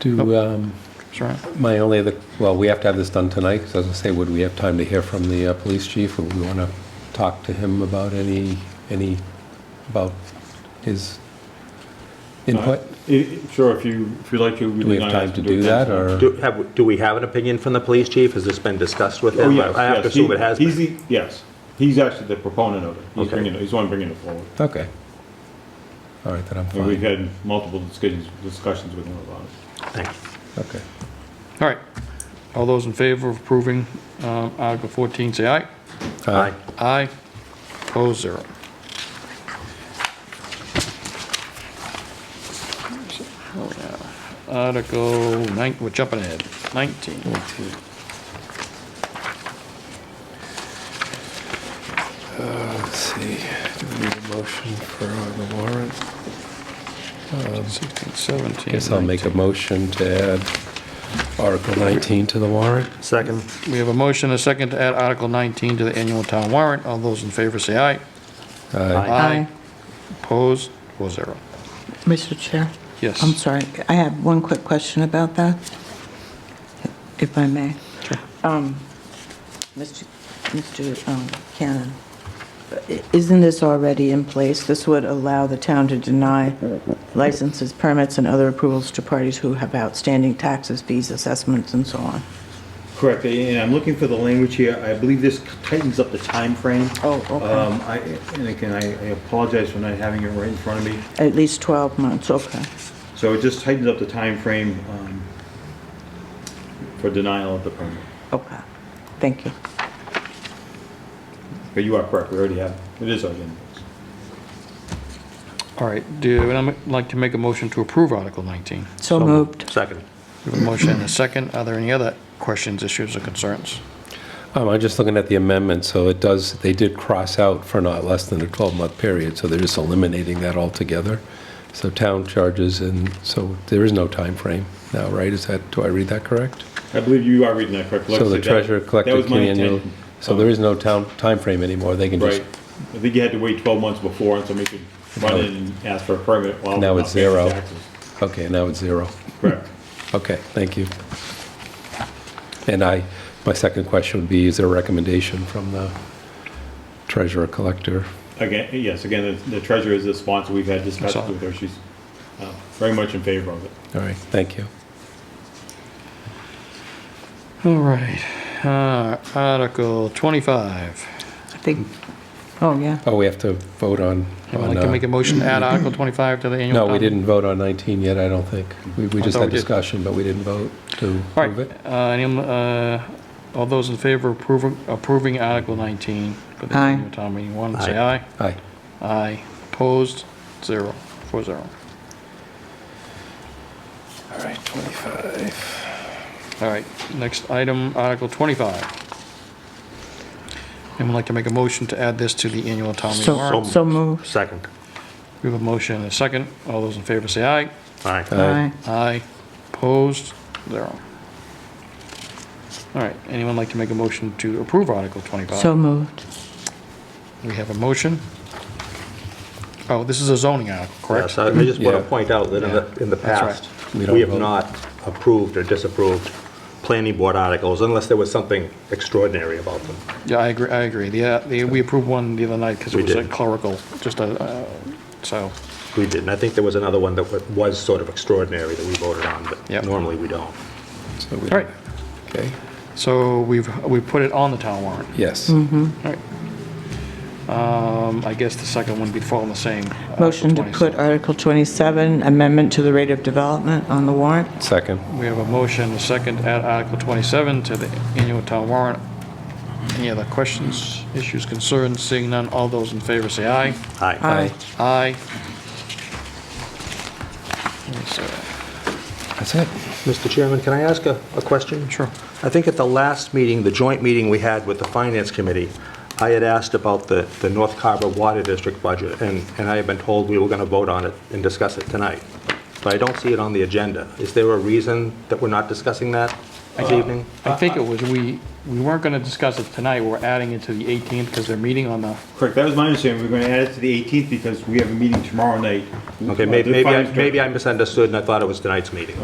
Do, um, Sure. my only other, well, we have to have this done tonight, because as I say, would we have time to hear from the uh, police chief? Would we want to talk to him about any, any, about his input? I- Uh, Sure, if you, if you'd like to. Do we have time to do that, or? Do, have, do we have an opinion from the police chief? Has this been discussed with Oh, him? yes, I have to yes, he- assume it has He's, been. the- yes, he's actually the proponent of it. He's Okay. bringing, it- he's the one bringing it forward. Okay. All right, then I'm And We've fine. had multiple discussions, discussions with him about it. Thanks. Okay. All right. All those in favor of approving um, Article 14, say aye. Aye. Aye. Opposed, zero. Article 9, we're jumping ahead. 19. Let's see, do we need a motion for the warrant? 16, 17. Guess I'll make a motion to add Article 19 to the warrant. Second. We have a motion, and a second, to add Article 19 to the annual town warrant. All those in favor, say aye. Aye. Aye. Opposed, four zero. Mr. Chair? Yes. I'm sorry, I have one quick question about that, if I may. Um, Mr. Mr. um, Cannon, i- isn't this already in place? This would allow the town to deny licenses, permits, and other approvals to parties who have outstanding taxes, fees, assessments, and so on. Correct, and I'm looking for the language here, I believe this tightens up the time frame. Oh, okay. Um, I, and again, I I apologize for not having it right in front of me, At least 12 months, okay. so it just tightens up the timeframe, um, for denial of the permit. Okay, thank you. But you are correct, we already have, it is already in place. All right, do, and I'd like to make a motion to approve Article 19. So moved. Second. We have a motion and a second. Are there any other questions, issues, or concerns? Um, I'm just looking at the amendment, so it does, they did cross out for not less than a 12-month period, so they're just eliminating that altogether. So town charges, and so there is no time frame now, right? Is that, do I read that correct? I believe you are reading that correctly. Like I So the said, that- treasurer that collected was my key annual, intention. so there is no town time frame anymore, they can just, Right. I think you had to wait 12 months before, and somebody could run in and ask for a permit while. Now we're it's not paying zero. taxes. okay, now it's zero. Correct. Okay, thank you. And I, my second question would be, is there a recommendation from the treasurer collector? Again, yes, again, the- the treasurer is the sponsor. We've had discussions all. with her. She's uh, very much in favor of it. All right, thank you. All right, uh, Article 25. I think, oh, yeah. Oh, we have to vote on. I'd on, like to uh, make a motion to add Article 25 to the annual. No, we town- didn't vote on 19 yet, I don't think. We we I just thought Oh, we had did. discussion, but we didn't vote to All prove it. right, uh, any, uh, all those in favor of approving, approving Article 19 for the Aye. annual town meeting, one, say aye. Aye. Aye. Opposed, zero, four zero. All right, 25. All right, next item, Article 25. And I'd like to make a motion to add this to the annual town meeting warrant. So so moved. Second. We have a motion and a second. All those in favor say aye. Aye. Uh, Aye. Aye. Opposed? Zero. All right, anyone like to make a motion to approve Article Aye. So 25? moved. We have a motion. Oh, this is a zoning article, correct? Yes, I I just want Yeah. to point out that in the, Yeah. in the That's right. past, We don't we have vote. not approved or disapproved planning board articles unless there was something extraordinary about them. Yeah, I agree, I agree. The, uh, the- we approved one the other night because We it was a did. clerical, just a, uh, so, We didn't. I think there was another one that wa- was sort of extraordinary that we voted on, Yep. but normally we don't. So we- all right. Okay, So we've, we put it on the town warrant. yes. All right. Um, I guess the second one would be following the same. uh, Article Motion to 27. put Article 27, amendment to the rate of development on the warrant. Second. We have a motion, a second, to add Article 27 to the annual town warrant. Any other questions, issues, concerns? Seeing none, all those in favor say aye. Aye. Aye. That's it. Mr. Chairman, can I ask a, a question? Sure. I think at the last meeting, the joint meeting we had with the Finance Committee, I had asked about the, the North Carver Water District budget, and, and I had been told we were going to vote on it and discuss it tonight. But I don't see it on the agenda. Is there a reason that we're not discussing that Uh, this evening? I think it was, we, we weren't going to discuss it tonight, we're adding it to the 18th because they're meeting on the, Correct, that was my understanding. We're going to add it to the 18th because we have a meeting tomorrow night. Okay, Uh, may- the maybe, I- finance director. maybe I misunderstood and I thought it was tonight's meeting.